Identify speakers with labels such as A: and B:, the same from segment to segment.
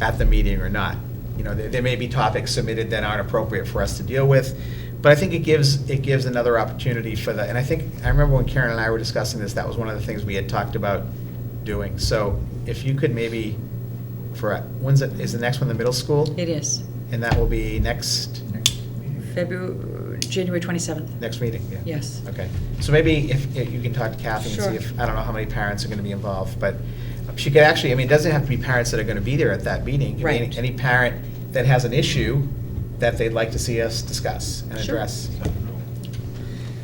A: at the meeting or not. You know, there, there may be topics submitted that aren't appropriate for us to deal with, but I think it gives, it gives another opportunity for the, and I think, I remember when Karen and I were discussing this, that was one of the things we had talked about doing. So if you could maybe, for, when's it, is the next one the middle school?
B: It is.
A: And that will be next,
B: February, January 27th.
A: next meeting, yeah?
B: Yes.
A: Okay, so maybe if, if you can talk to Kathy
B: Sure.
A: and see if, I don't know how many parents are gonna be involved, but she could actually, I mean, it doesn't have to be parents that are gonna be there at that meeting. It could be any-
B: Right.
A: Any parent that has an issue that they'd like to see us discuss and
B: Sure.
A: address.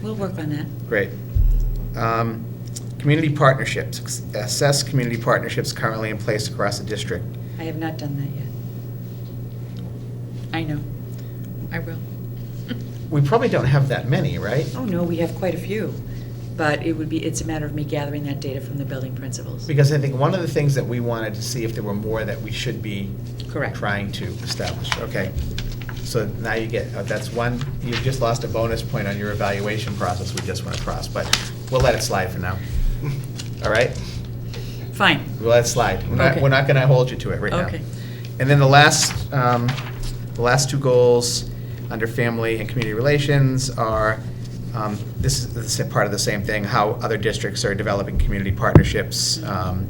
B: We'll work on that.
A: Great. Um, Community partnerships, assess community partnerships currently in place across the district.
B: I have not done that yet. I know. I will.
A: We probably don't have that many, right?
B: Oh, no, we have quite a few, but it would be, it's a matter of me gathering that data from the building principals.
A: Because I think one of the things that we wanted to see if there were more that we should be
B: Correct.
A: trying to establish, okay. So now you get, uh, that's one, you've just lost a bonus point on your evaluation process we just went across, but we'll let it slide for now. All right?
B: Fine.
A: We'll let it slide. We're not,
B: Okay.
A: we're not gonna hold you to it right now.
B: Okay.
A: And then the last, um, the last two goals under family and community relations are, um, this is the sa- part of the same thing, how other districts are developing community partnerships,
B: Mm-hmm.
A: um,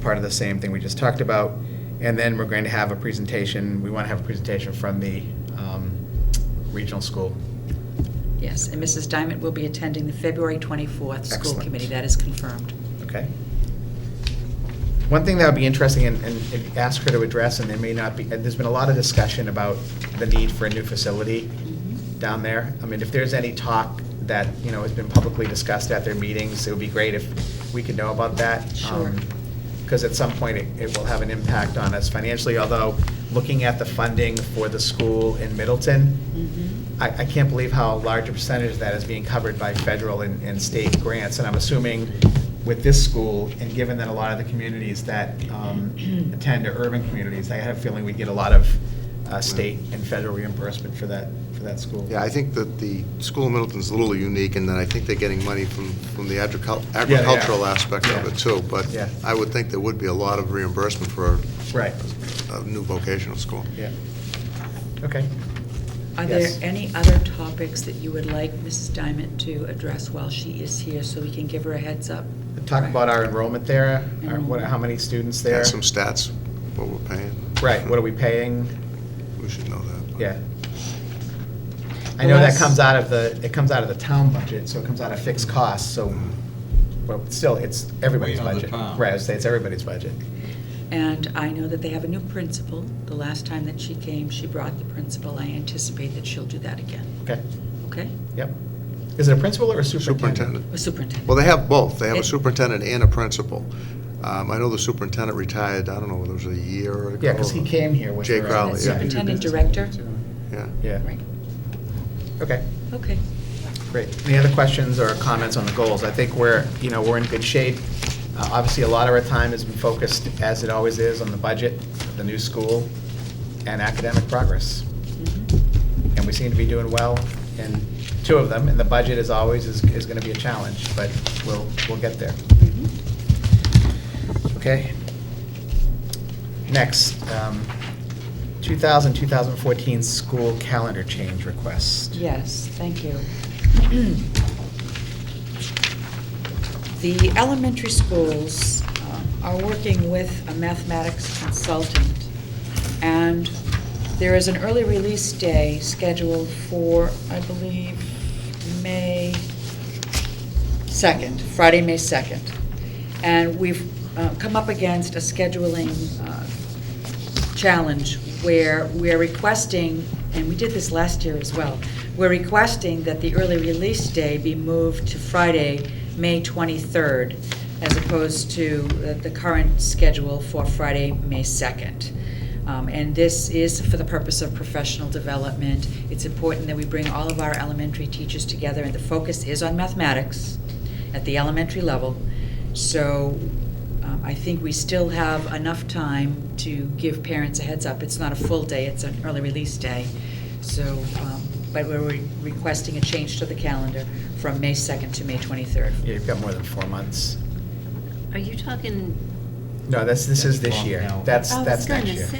A: part of the same thing we just talked about. And then we're going to have a presentation, we wanna have a presentation from the, um, regional school.
B: Yes, and Mrs. Diamond will be attending the February 24th school
A: Excellent.
B: committee. That is confirmed.
A: Okay. One thing that would be interesting and, and if- ask her to address, and there may not be, and there's been a lot of discussion about the need for a new facility down there. I mean, if there's any talk that, you know, has been publicly discussed at their meetings, it would be great if we could know about that.
B: Sure.
A: Because at some point, it, it will have an impact on us financially, although, looking at the funding for the school in Middleton, I, I can't believe how large a percentage of that is being covered by federal and, and state grants, and I'm assuming with this school, and given that a lot of the communities that um, attend are urban communities, I have a feeling we'd get a lot of uh, state and federal reimbursement for that, for that school.
C: Yeah, I think that the school in Middleton's a little unique in that I think they're getting money from, from the agricu-
A: they are.
C: agricultural aspect of
A: Yeah.
C: it too, but
A: Yeah.
C: I would think there would be a lot of reimbursement for
A: Right,
C: a new vocational school.
A: yeah. Okay.
B: Are there
A: Yes.
B: any other topics that you would like Mrs. Diamond to address while she is here, so we can give her a heads up?
A: Talk about our enrollment there, our- what,
B: Enrollment.
A: how many students there?
C: And some stats, what we're paying.
A: Right, what are we paying?
C: We should know that. but-
A: Yeah. I know that
B: Unless-
A: comes out of the, it comes out of the town budget, so it comes out of fixed costs, so, but still, it's everybody's
D: Way out of the
A: budget.
D: town.
A: Right, I would say it's everybody's budget.
B: And I know that they have a new principal. The last time that she came, she brought the principal. I anticipate that she'll do that again,
A: Okay,
B: okay?
A: yep. Is it a principal or a superintendent?
C: Superintendent.
B: A superintendent.
C: Well, they have both. They have
B: It-
C: a superintendent and a principal. Um, I know the superintendent retired, I don't know, whether it was a year ago.
A: Yeah, because he came here with.
C: Jay
A: her-
C: Crowley,
B: That
C: yeah.
B: Superintendent, director?
C: Yeah.
A: Yeah,
B: Right,
A: okay,
B: okay.
A: great. Any other questions or comments on the goals? I think we're, you know, we're in good shape. Uh, Obviously, a lot of our time has been focused, as it always is, on the budget, the new school, and academic progress.
B: Mhm.
A: and we seem to be doing well in two of them, and the budget, as always, is, is gonna be a challenge, but we'll, we'll get there,
B: Mhm.
A: okay? Next, um, 2000, 2014 school calendar change request.
B: Yes, thank you. The elementary schools um, are working with a mathematics consultant, and there is an early release day scheduled for, I believe, May 2nd, Friday, May 2nd. And we've uh, come up against a scheduling uh, challenge where we're requesting, and we did this last year as well, we're requesting that the early release day be moved to Friday, May 23rd, as opposed to the the current schedule for Friday, May 2nd. Um, And this is for the purpose of professional development. It's important that we bring all of our elementary teachers together, and the focus is on mathematics at the elementary level. So um, I think we still have enough time to give parents a heads up. It's not a full day, it's an early release day. So, um, but we're re- requesting a change to the calendar from May 2nd to May 23rd.
A: Yeah, you've got more than four months.
E: Are you talking
A: No, that's, this is this
D: That's long
A: year.
D: now.
A: That's,
E: I was
A: that's next
E: Oh, gonna
A: year.
E: say.